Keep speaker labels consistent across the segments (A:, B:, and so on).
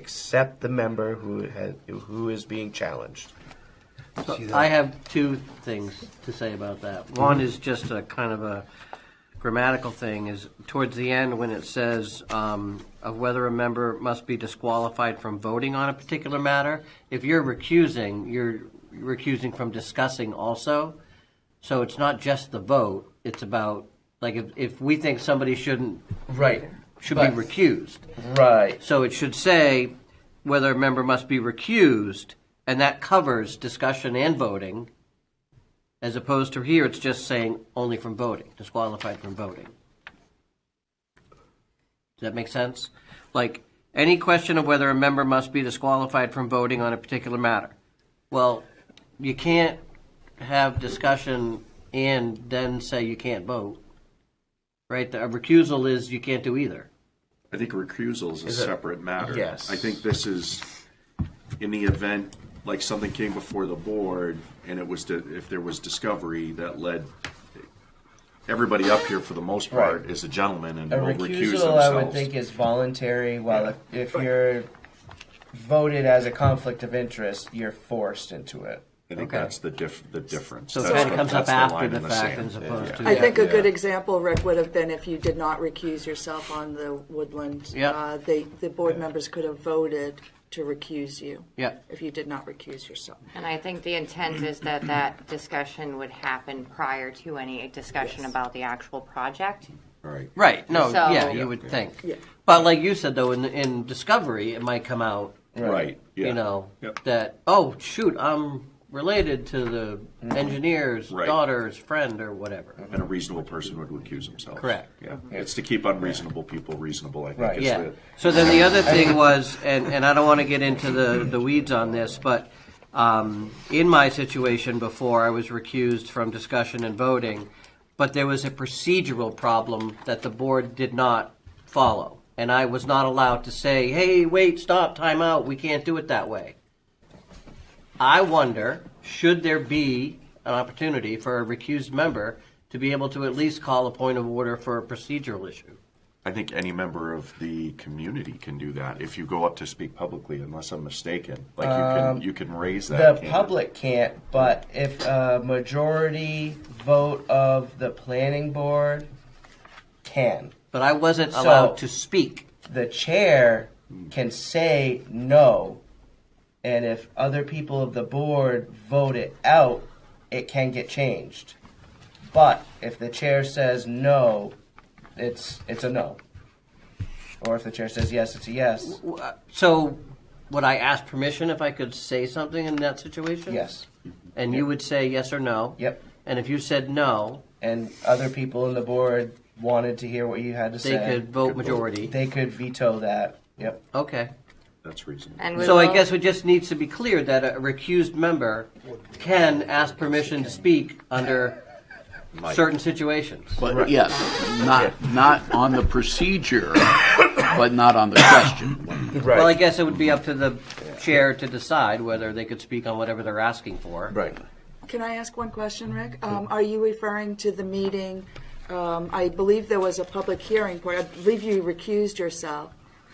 A: except the member who has, who is being challenged.
B: So
C: See that?
B: I have two things to say about that. One is just a kind of a grammatical thing, is towards the end when it says um, of whether a member must be disqualified from voting on a particular matter. If you're recusing, you're recusing from discussing also. So it's not just the vote, it's about, like, if, if we think somebody shouldn't,
C: Right.
B: should
C: But-
B: be recused.
C: Right.
B: So it should say whether a member must be recused, and that covers discussion and voting, as opposed to here, it's just saying only from voting, disqualified from voting. Does that make sense? Like, any question of whether a member must be disqualified from voting on a particular matter. Well, you can't have discussion and then say you can't vote, right? A recusal is you can't do either.
D: I think recusal is a
A: it-
D: separate matter.
A: Yes.
D: I think this is, in the event, like something came before the board, and it was, di- if there was discovery that led, everybody up here for the most part
A: Right.
D: is a gentleman and
C: A
D: will recuse
C: recusal, I would think,
D: themselves.
C: is voluntary. While if, if you're voted as a conflict of interest, you're forced into it.
D: I think
B: Okay.
D: that's the diff, the difference.
B: So it
D: That's
B: kind
D: the-
B: of comes
D: that's
B: up
D: the
B: after
D: line
B: the
D: in
B: fact
D: sand.
B: as opposed
D: Yeah.
B: to.
E: I think a
B: Yeah.
E: good example, Rick, would have been if you did not recuse yourself on the Woodland.
B: Yeah.
E: uh, They, the board members could have voted to recuse you.
B: Yeah.
E: If you did not recuse yourself.
F: And I think the intent is that that discussion would happen prior to any discussion about the actual project.
D: Right.
B: Right, no,
F: So-
B: yeah, you
F: Yeah,
B: would
D: yeah.
B: think.
E: Yeah.
B: But like you said, though, in, in Discovery, it might come out,
D: Right, yeah.
B: you know,
D: Yep.
B: that, oh, shoot, I'm related to the engineer's
D: Mm-hmm. Right. Mm-hmm.
B: daughter's friend or whatever.
D: And a reasonable person would recuse themselves.
B: Correct.
D: Yeah, it's to keep unreasonable people reasonable, I
C: Right.
D: think, is
B: Yeah.
D: the.
B: So then the other thing was, and, and I don't want to get into the, the weeds on this, but um, in my situation before, I was recused from discussion and voting, but there was a procedural problem that the board did not follow. And I was not allowed to say, hey, wait, stop, time out, we can't do it that way. I wonder, should there be an opportunity for a recused member to be able to at least call a point of order for a procedural issue?
D: I think any member of the community can do that if you go up to speak publicly, unless I'm mistaken. Like you can you can raise that.
C: Um, The
D: can't you?
C: public can't, but if a majority vote of the planning board can,
B: But I wasn't
C: So-
B: allowed to speak.
C: the chair can say no, and if other people of the board vote it out, it can get changed. But if the chair says no, it's it's a no. Or if the chair says yes, it's a yes.
B: Uh, So would I ask permission if I could say something in that situation?
C: Yes.
B: And you would say yes or no?
C: Yep.
B: And if you said no,
C: And other people in the board wanted to hear what you had to
B: they
C: say.
B: could vote majority.
C: They could veto that. Yep.
B: Okay.
D: That's reasonable.
F: And we
B: So I
F: will-
B: guess it just needs to be clear that a recused member can ask permission to speak under certain situations.
G: But yes, not, not on the procedure, but not on the question.
A: Right.
B: Well, I guess it would be up to the chair to decide whether they could speak on whatever they're asking for.
A: right.
E: Can I ask one question, Rick? Um, Are you referring to the meeting, um, I believe there was a public hearing, for- I believe you recused yourself.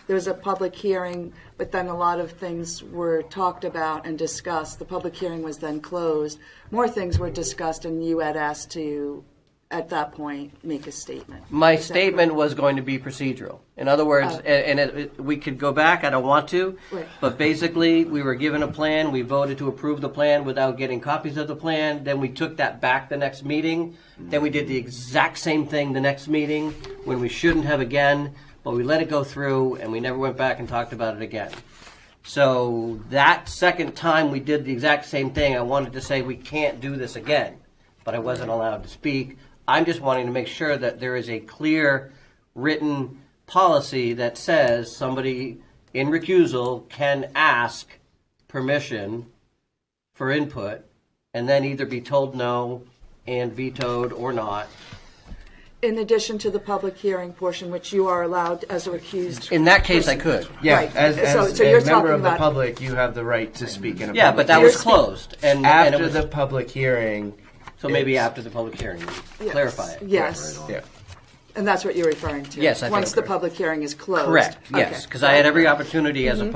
E: There was a public hearing, but then a lot of things were talked about and discussed. The public hearing was then closed. More things were discussed, and you had asked to, at that point, make a statement.
B: My statement was going to be procedural. In other words, a- and it, it- we could go back, I don't want to,
E: Right.
B: but basically, we were given a plan, we voted to approve the plan without getting copies of the plan, then we took that back the next meeting, then we did the exact same thing the next meeting, when we shouldn't have again, but we let it go through, and we never went back and talked about it again. So that second time we did the exact same thing, I wanted to say we can't do this again, but I wasn't allowed to speak. I'm just wanting to make sure that there is a clear written policy that says somebody in recusal can ask permission for input and then either be told no and vetoed or not.
E: In addition to the public hearing portion, which you are allowed as a recused.
B: In that case, I could.
C: Yeah,
E: Right.
C: as, as
E: So- so
C: a
E: you're
C: member
E: talking
C: of the
E: about-
C: public, you have the right to speak in a
B: Yeah,
C: public
B: but that
C: hearing.
B: was closed and, and it
C: after
B: was,
C: the public hearing.
B: so maybe
C: it's-
B: after the public hearing,
E: Yes.
B: clarify it.
E: Yes,
C: Yeah.
E: and that's what you're referring to.
B: Yes, I think-
E: Once the public hearing is closed.
B: Correct, yes,
E: Okay.
B: because I had every opportunity as a